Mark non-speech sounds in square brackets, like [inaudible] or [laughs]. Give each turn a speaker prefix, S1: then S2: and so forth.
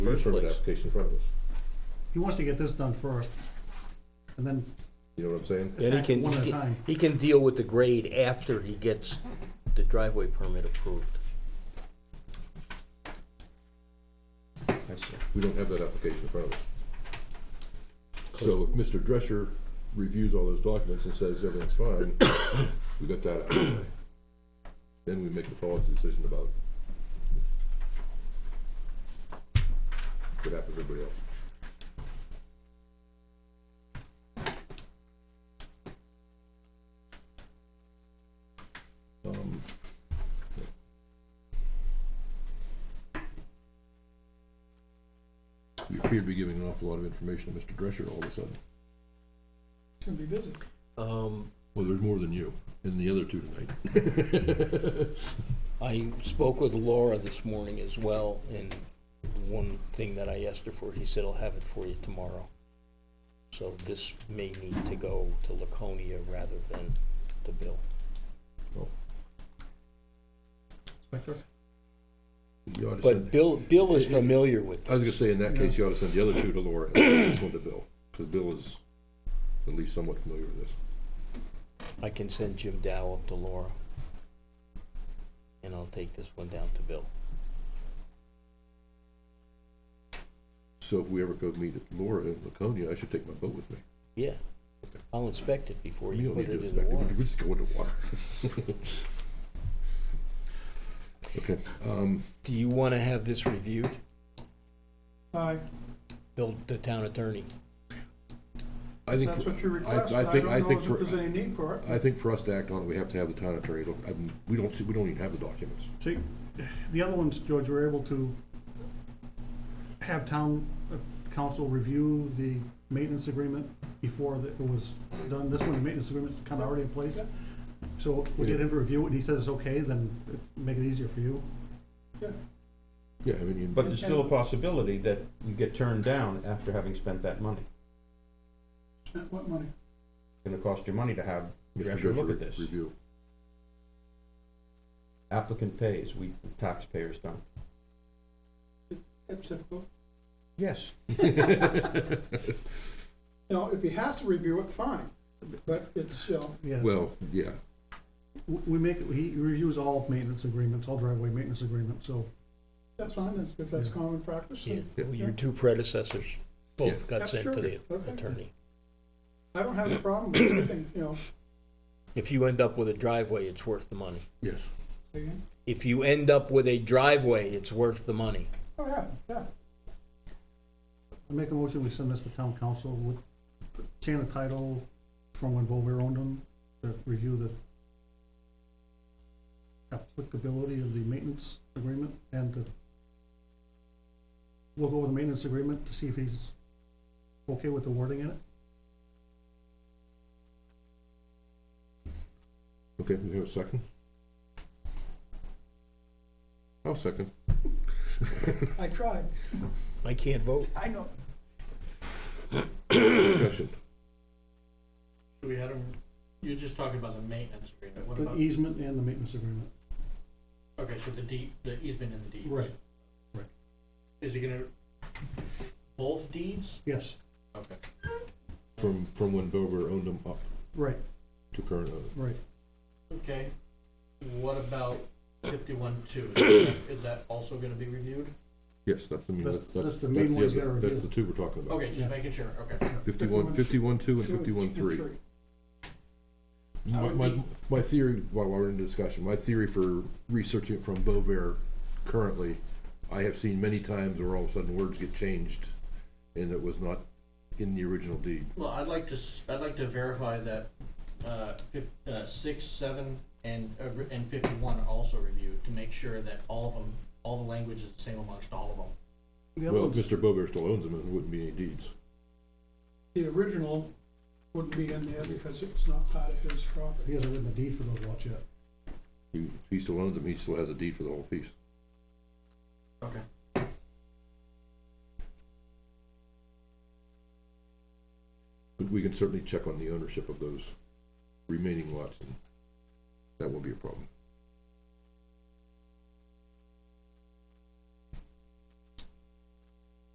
S1: first
S2: permit
S1: place.
S2: application in front of us.
S3: He wants to get this done first, and then,
S2: You know what I'm saying?
S1: And he can,
S3: One at a
S1: he can,
S3: time.
S1: he can deal with the grade after he gets the driveway permit approved.
S4: I see.
S2: We don't have that application in front of us. So if Mr. Drescher reviews all those documents and says everything's fine, [coughs] we got that out of the way. Then we make the policy decision about what happens to everybody else. Um, We appear to be giving an awful lot of information to Mr. Drescher all of a sudden.
S5: It's gonna be busy.
S1: Um,
S2: Well, there's more than you and the other two tonight.
S1: [laughs] I spoke with Laura this morning as well, and one thing that I asked her for, he said, I'll have it for you tomorrow. So this may need to go to Laconia rather than to Bill.
S3: Inspector,
S2: You ought to
S1: But
S2: send,
S1: Bill, Bill [laughs] is familiar with
S2: I was gonna say, in that case, you ought to send the other two to Laura and this one to Bill, because Bill is at least somewhat familiar with this.
S1: I can send Jim Dow up to Laura. And I'll take this one down to Bill.
S2: So if we ever go meet at Laura in Laconia, I should take my boat with me.
S1: Yeah. I'll inspect it before
S2: You
S1: you
S2: don't
S1: put
S2: need
S1: it
S2: to
S1: in the
S2: inspect it, [laughs]
S1: water.
S2: we just go into water. Okay, um,
S1: Do you want to have this reviewed,
S5: I,
S1: Bill, the town attorney?
S2: I think,
S5: that's what you
S2: for-
S5: request,
S2: I, I
S5: I don't
S2: think,
S5: know
S2: I think
S5: if
S2: for,
S5: there's any need for it.
S2: I think for us to act on it, we have to have the town attorney, look, I mean, we don't see, we don't even have the documents.
S3: see, the other ones, George, were able to have town uh, council review the maintenance agreement before that it was done. This one, the maintenance agreement's kind of already in place. So if we get him to review it, and he says it's okay, then it- make it easier for you.
S2: Yeah, I mean, you-
S4: But there's still a possibility that you get turned down after having spent that money.
S5: Spent what money?
S4: It's gonna cost you money to have
S2: Mr.
S4: Drescher look
S2: Drescher
S4: at this.
S2: Review.
S4: Applicant pays, we taxpayers don't.
S5: That's typical.
S4: Yes.
S5: You know, if he has to review it, fine, but it's, you know,
S3: Yeah,
S2: [laughs] Well, yeah,
S3: W- we make, he reviews all maintenance agreements, all driveway maintenance agreements, so
S5: that's fine, that's, if that's common practice.
S1: Yeah,
S5: then
S1: your two predecessors both got
S5: That's
S1: sent to the
S5: true. Okay.
S1: attorney.
S5: I don't have a problem with anything, you know.
S1: If you end up with a driveway, it's worth the money.
S2: yes.
S5: again.
S1: If you end up with a driveway, it's worth the money.
S5: Oh, yeah, yeah.
S3: I make a motion, we send this to town council with the chain of title from when Bover owned them, to review the applicability of the maintenance agreement and to look over the maintenance agreement to see if he's okay with the wording in it.
S2: Okay, we have a second? I'll second.
S5: I tried,
S1: I can't vote.
S5: I know.
S2: Discussion.
S6: We had them, you're just talking about the maintenance agreement, what
S3: The
S6: about,
S3: easement and the maintenance agreement.
S6: okay, so the deed, the easement and the deeds.
S3: Right, right.
S6: Is he gonna, both deeds?
S3: Yes,
S6: Okay.
S2: From, from when Dover owned them up
S3: right,
S2: to current owners.
S3: right.
S6: Okay, what about fifty-one
S3: [coughs]
S6: two, is that also gonna be reviewed?
S2: Yes, that's the,
S3: That's-
S2: that's, that's
S3: that's the
S2: the
S3: main ones that
S2: other,
S3: are
S2: that's the
S3: reviewed.
S2: two we're talking about.
S6: Okay,
S3: Yeah.
S6: just making sure, okay.
S2: Fifty-one, fifty-one two and fifty-one three.
S6: I
S2: My,
S6: would
S2: my,
S6: be-
S2: my theory, while we're in discussion, my theory for researching it from Bover currently, I have seen many times where all of a sudden words get changed and it was not in the original deed.
S6: Well, I'd like to, s- I'd like to verify that, uh, fif- uh, six, seven, and, uh, re- and fifty-one are also reviewed, to make sure that all of them, all the language is the same amongst all of them.
S3: The other
S2: Well, if
S3: ones,
S2: Mr. Bover still owns them, it wouldn't be any deeds.
S5: The original wouldn't be in there because it's not part of his
S3: he
S5: property.
S3: hasn't written a deed for those lots yet.
S2: He, he still owns them, he still has a deed for the whole piece.
S6: Okay.
S2: But we can certainly check on the ownership of those remaining lots, and that won't be a problem.